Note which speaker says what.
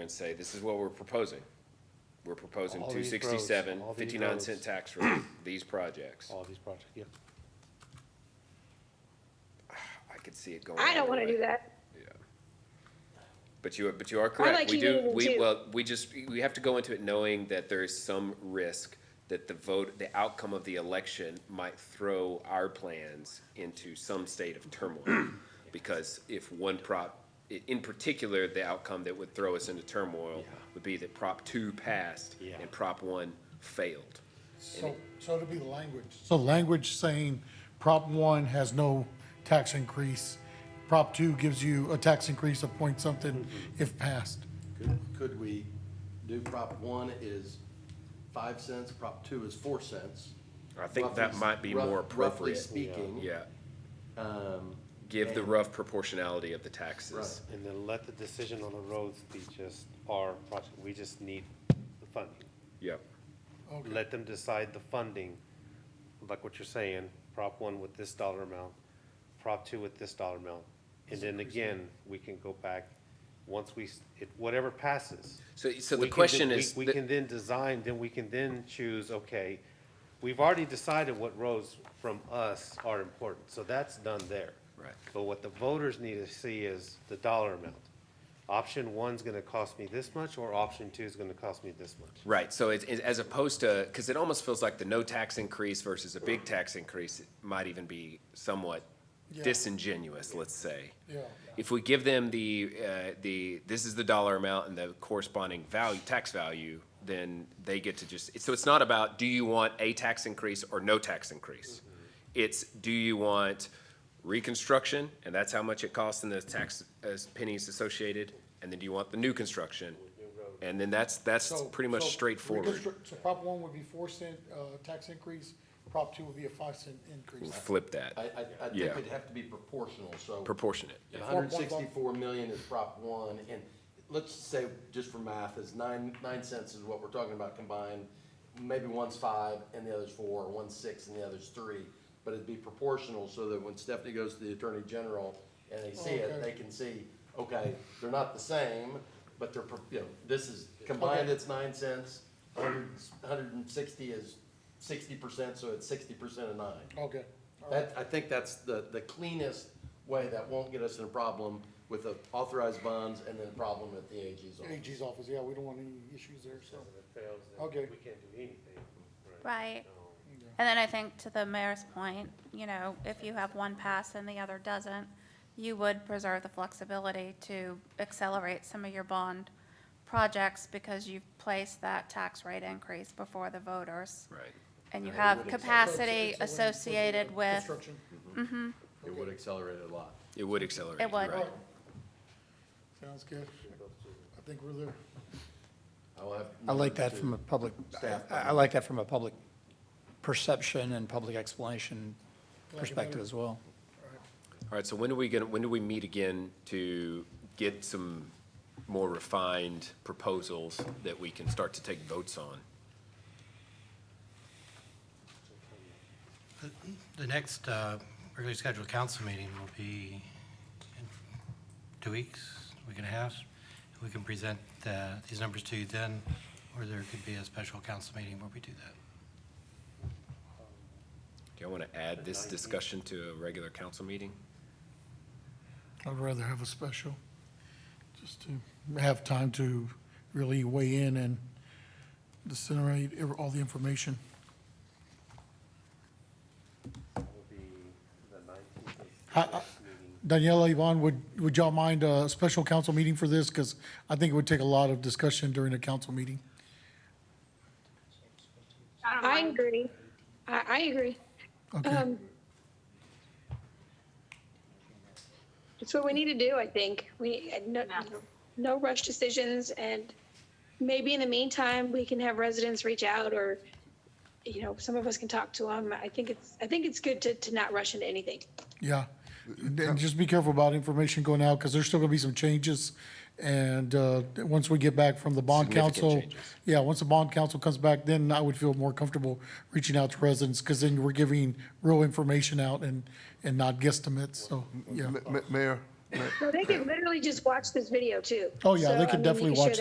Speaker 1: and say, this is what we're proposing. We're proposing
Speaker 2: All
Speaker 1: two
Speaker 2: these roads,
Speaker 1: sixty-seven,
Speaker 2: all these
Speaker 1: fifty-nine
Speaker 2: roads. Oh.
Speaker 1: cent tax rate, these projects.
Speaker 2: all these projects, yeah.
Speaker 1: I could see it going.
Speaker 3: I don't
Speaker 1: either
Speaker 3: want to
Speaker 1: way.
Speaker 3: do that.
Speaker 1: But you, are- but you are correct.
Speaker 3: like
Speaker 1: We
Speaker 3: you
Speaker 1: do,
Speaker 3: meaning
Speaker 1: we,
Speaker 3: to-
Speaker 1: well, we just, we have to go into it knowing that there is some risk that the vote, the outcome of the election might throw our plans into some state of turmoil. Because if one prop, i- in particular, the outcome that would throw us into turmoil would be that Prop two passed
Speaker 2: Yeah.
Speaker 1: and Prop one failed.
Speaker 4: So, so it'll be the language. So language saying Prop one has no tax increase, Prop two gives you a tax increase of point something if passed.
Speaker 5: Could, could we do Prop one is five cents, Prop two is four cents?
Speaker 1: I think that
Speaker 5: Roughly-
Speaker 1: might be
Speaker 5: rough-
Speaker 1: more
Speaker 5: Roughly
Speaker 1: appropriate.
Speaker 5: speaking.
Speaker 1: Yeah,
Speaker 5: Um,
Speaker 1: give the rough proportionality of the taxes.
Speaker 2: And then let the decision on the roads be just our project, we just need the funding.
Speaker 1: Yep,
Speaker 2: Let them decide the funding, like what you're saying, Prop one with this dollar amount, Prop two with this dollar amount. And then again, we can go back, once we, s- it- whatever passes.
Speaker 1: So- so the
Speaker 2: we can
Speaker 1: question
Speaker 2: then-
Speaker 1: is
Speaker 2: We we
Speaker 1: that-
Speaker 2: can then design, then we can then choose, okay, we've already decided what roads from us are important, so that's done there.
Speaker 1: Right.
Speaker 2: But what the voters need to see is the dollar amount. Option one's gonna cost me this much, or option two's gonna cost me this much.
Speaker 1: right. So it's, it's- as opposed to, because it almost feels like the no tax increase versus a big tax increase might even be somewhat
Speaker 4: Yeah.
Speaker 1: disingenuous, let's say.
Speaker 4: Yeah.
Speaker 1: If we give them the, uh, the, this is the dollar amount and the corresponding value, tax value, then they get to just, so it's not about, do you want a tax increase or no tax increase?
Speaker 4: Mm-hmm.
Speaker 1: It's, do you want reconstruction, and that's how much it costs and the tax uh, pennies associated? And then do you want the new construction? And then that's, that's
Speaker 4: So-
Speaker 1: pretty
Speaker 4: so
Speaker 1: much straightforward.
Speaker 4: reconstru- So Prop one would be four cent, uh, tax increase, Prop two would be a five cent increase.
Speaker 1: Flip
Speaker 5: I, I,
Speaker 1: that,
Speaker 5: I think
Speaker 1: Yeah.
Speaker 5: it'd have to be proportional, so.
Speaker 1: proportionate.
Speaker 5: If hundred sixty-four million is Prop one, and let's say, just for math, is nine, nine cents is what we're talking about combined. Maybe one's five and the other's four, or one's six and the other's three, but it'd be proportional so that when Stephanie goes to the Attorney General and they see it,
Speaker 4: Okay.
Speaker 5: they can see, okay, they're not the same, but they're, pro- you know, this is, combined it's nine cents, hundred, hundred and sixty is sixty percent, so it's sixty percent of nine.
Speaker 4: Okay. all right.
Speaker 5: That, I think that's the, the cleanest way that won't get us in a problem with the authorized bonds and then a problem at the AG's office.
Speaker 4: AG's office, yeah, we don't want any issues there, so.
Speaker 2: If it fails, then
Speaker 4: Okay.
Speaker 2: we can't do anything.
Speaker 6: Right. And then I think to the mayor's point, you know, if you have one pass and the other doesn't, you would preserve the flexibility to accelerate some of your bond projects because you've placed that tax rate increase before the voters.
Speaker 1: Right.
Speaker 6: And you
Speaker 5: Right, it
Speaker 6: have
Speaker 5: would
Speaker 6: capacity
Speaker 4: So it's a win- win-
Speaker 6: associated with,
Speaker 4: Construction,
Speaker 5: It would accelerate it a lot.
Speaker 1: It would accelerate.
Speaker 6: It would.
Speaker 1: right.
Speaker 4: sounds good. I think we're there.
Speaker 5: I will have.
Speaker 7: I like that from a public, I,
Speaker 5: Staff.
Speaker 7: I like that from a public perception and public explanation
Speaker 4: better.
Speaker 7: perspective as well.
Speaker 1: All right, so when are we gonna, when do we meet again to get some more refined proposals that we can start to take votes on?
Speaker 8: The next uh, regularly scheduled council meeting will be in two weeks, week and a half. We can present uh, these numbers to you then, or there could be a special council meeting where we do that.
Speaker 1: Do you want to add this discussion to a regular council meeting?
Speaker 4: I'd rather have a special, just to have time to really weigh in and disseminate ev- all the information.
Speaker 2: It will be the nineteenth
Speaker 4: I- I-
Speaker 2: meeting.
Speaker 4: uh, Daniela, Yvonne, would, would y'all mind a special council meeting for this? Because I think it would take a lot of discussion during a council meeting.
Speaker 3: I agree. I, I agree. Um,
Speaker 4: Okay,
Speaker 3: It's what we need to do, I think. We, no, no rush decisions and maybe in the meantime, we can have residents reach out or, you know, some of us can talk to them. I think it's, I think it's good to, to not rush into anything.
Speaker 1: Uh,
Speaker 4: yeah. And and just be careful about information going out, because there's still going to be some changes. And uh, once we get back from the bond
Speaker 1: Significant
Speaker 4: council.
Speaker 1: changes.
Speaker 4: Yeah, once the bond council comes back, then I would feel more comfortable reaching out to residents, because then we're giving real information out and, and not guesstimates, so, yeah.
Speaker 9: Ma- ma- Mayor,
Speaker 3: So they can literally just watch this video too.
Speaker 4: Oh, yeah,
Speaker 3: So,
Speaker 4: they
Speaker 3: I
Speaker 4: can
Speaker 3: mean, you
Speaker 4: definitely
Speaker 3: share
Speaker 4: watch